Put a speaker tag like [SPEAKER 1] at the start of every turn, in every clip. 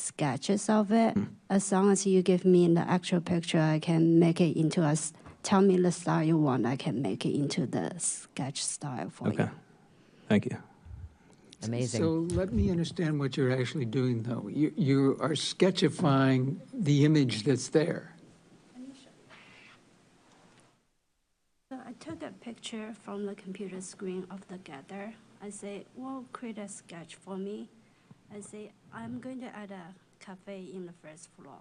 [SPEAKER 1] sketches of it. As long as you give me the actual picture, I can make it into a. s- Tell me the style you want. I can make it into the sketch style for
[SPEAKER 2] Okay.
[SPEAKER 1] you.
[SPEAKER 2] Thank you.
[SPEAKER 3] Amazing.
[SPEAKER 4] So let me understand what you're actually doing, though. You, you are sketchifying the image that's there.
[SPEAKER 1] So I took a picture from the computer screen of the gather. I say, well, create a sketch for me. I say, I'm going to add a cafe in the first floor.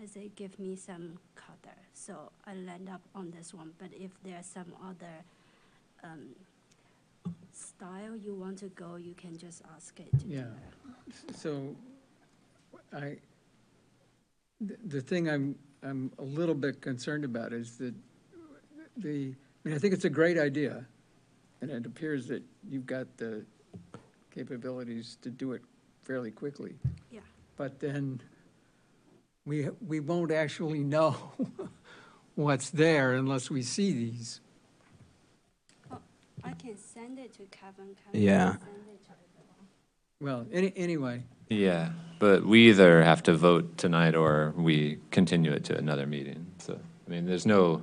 [SPEAKER 1] I say, give me some color. So I land up on this one. But if there's some other um, style you want to go, you can just ask it. to do
[SPEAKER 4] Yeah.
[SPEAKER 1] that.
[SPEAKER 4] So I, the, the thing I'm, I'm a little bit concerned about is that the, I mean, I think it's a great idea. And it appears that you've got the capabilities to do it fairly quickly.
[SPEAKER 1] Yeah.
[SPEAKER 4] But then we, we won't actually know what's there unless we see these.
[SPEAKER 1] Oh, I can send it to Kevin. Kevin
[SPEAKER 2] Yeah.
[SPEAKER 1] can Send it to everyone.
[SPEAKER 4] Well, any, anyway,
[SPEAKER 5] Yeah, but we either have to vote tonight or we continue it to another meeting. So, I mean, there's no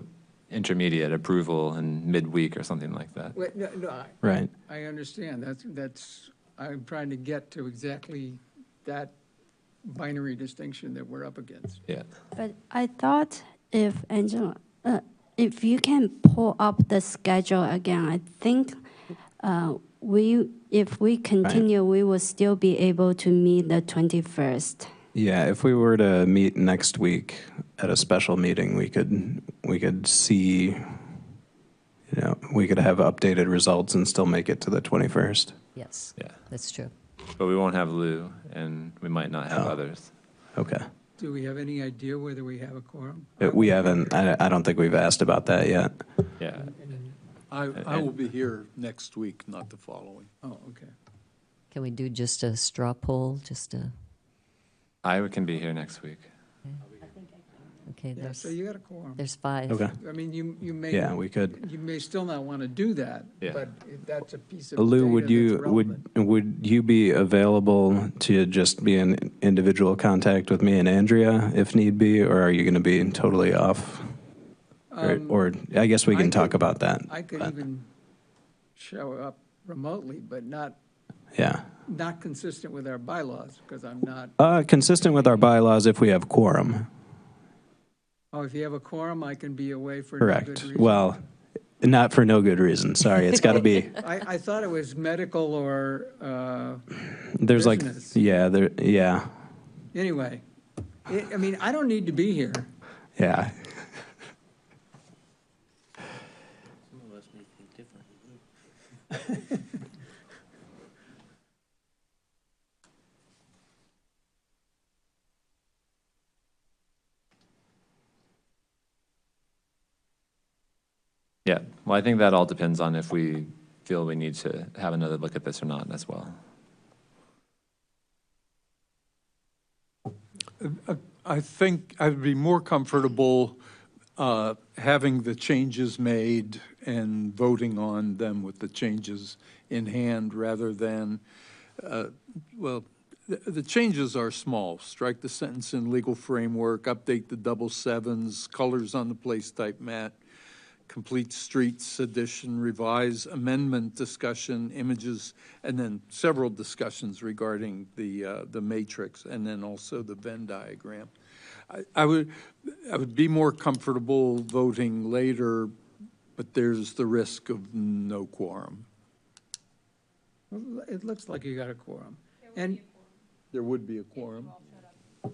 [SPEAKER 5] intermediate approval in midweek or something like that.
[SPEAKER 4] wait, no, no, I-
[SPEAKER 2] Right.
[SPEAKER 4] I understand, that's, that's, I'm trying to get to exactly that binary distinction that we're up against.
[SPEAKER 5] Yeah.
[SPEAKER 1] But I thought if Angela, uh, if you can pull up the schedule again, I think uh, we, if we continue, we will still be able to meet the 21st.
[SPEAKER 2] Yeah, if we were to meet next week at a special meeting, we could we could see you know, we could have updated results and still make it to the 21st.
[SPEAKER 3] Yes,
[SPEAKER 5] Yeah.
[SPEAKER 3] that's true.
[SPEAKER 5] But we won't have Lou and we might not have
[SPEAKER 2] Oh.
[SPEAKER 5] others.
[SPEAKER 2] Okay.
[SPEAKER 4] Do we have any idea whether we have a quorum?
[SPEAKER 2] Uh, We haven't I, I don't think we've asked about that yet.
[SPEAKER 5] Yeah.
[SPEAKER 6] I, I will be here next week, not the following.
[SPEAKER 4] Oh, okay.
[SPEAKER 3] Can we do just a straw poll, just a,
[SPEAKER 5] I can be here next week.
[SPEAKER 3] okay,
[SPEAKER 4] Yeah,
[SPEAKER 3] there's,
[SPEAKER 4] so you got a quorum.
[SPEAKER 3] there's five.
[SPEAKER 2] Okay.
[SPEAKER 4] I mean, you, you may,
[SPEAKER 2] Yeah, we
[SPEAKER 4] you
[SPEAKER 2] could
[SPEAKER 4] may still not want to do that,
[SPEAKER 5] Yeah.
[SPEAKER 4] but if that's a piece of
[SPEAKER 2] Lou,
[SPEAKER 4] data
[SPEAKER 2] would you,
[SPEAKER 4] that's
[SPEAKER 2] would,
[SPEAKER 4] relevant.
[SPEAKER 2] would you be available to just be in individual contact with me and Andrea if need be, or are you going to be totally off? Or, uh,
[SPEAKER 4] Um,
[SPEAKER 2] or I guess we
[SPEAKER 4] I
[SPEAKER 2] can talk
[SPEAKER 4] could-
[SPEAKER 2] about that.
[SPEAKER 4] I could
[SPEAKER 2] but-
[SPEAKER 4] even show up remotely, but not,
[SPEAKER 2] Yeah.
[SPEAKER 4] not consistent with our bylaws, because I'm not,
[SPEAKER 2] Uh, consistent with our bylaws, if we have quorum,
[SPEAKER 4] oh, if you have a quorum, I can be away for no good
[SPEAKER 2] correct?
[SPEAKER 4] reason.
[SPEAKER 2] Well, not for no good reason, sorry, it's got to be,
[SPEAKER 4] I, I thought it was medical or, uh,
[SPEAKER 2] there's like,
[SPEAKER 4] Business.
[SPEAKER 2] yeah, there, yeah,
[SPEAKER 4] anyway. I I mean, I don't need to be here.
[SPEAKER 2] yeah.
[SPEAKER 7] Some of us may think differently.
[SPEAKER 5] Yeah. Well, I think that all depends on if we feel we need to have another look at this or not as well.
[SPEAKER 6] Uh, I think I'd be more comfortable uh, having the changes made and voting on them with the changes in hand rather than, uh, well, the- the changes are small. Strike the sentence in legal framework, update the double sevens, colors on the place type mat, complete streets edition, revise amendment discussion, images, and then several discussions regarding the, uh, the matrix, and then also the Venn diagram. I, I would, I would be more comfortable voting later, but there's the risk of no quorum.
[SPEAKER 4] Well, It looks like you got a quorum. And,
[SPEAKER 6] There would be a quorum.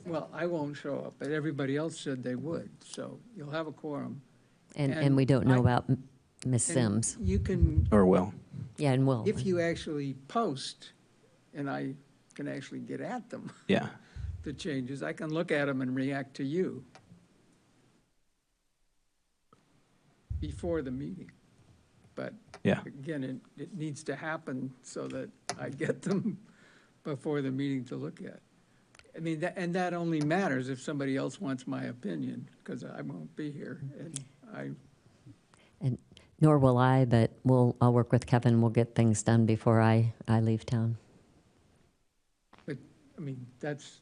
[SPEAKER 4] well, I won't show up, but everybody else said they would, so you'll have a quorum.
[SPEAKER 3] And,
[SPEAKER 4] And
[SPEAKER 3] and we don't know
[SPEAKER 4] I-
[SPEAKER 3] about M- Ms.
[SPEAKER 4] And
[SPEAKER 3] Sims.
[SPEAKER 4] You can,
[SPEAKER 2] Or will.
[SPEAKER 3] Yeah, and Will.
[SPEAKER 4] if you actually post, and I can actually get at them,
[SPEAKER 2] yeah.
[SPEAKER 4] the changes, I can look at them and react to you before the meeting. But
[SPEAKER 2] Yeah.
[SPEAKER 4] again, it, it needs to happen so that I get them before the meeting to look at. I mean, that, and that only matters if somebody else wants my opinion, because I won't be here, and I,
[SPEAKER 3] And nor will I, but we'll, I'll work with Kevin. We'll get things done before I, I leave town.
[SPEAKER 4] but, I mean, that's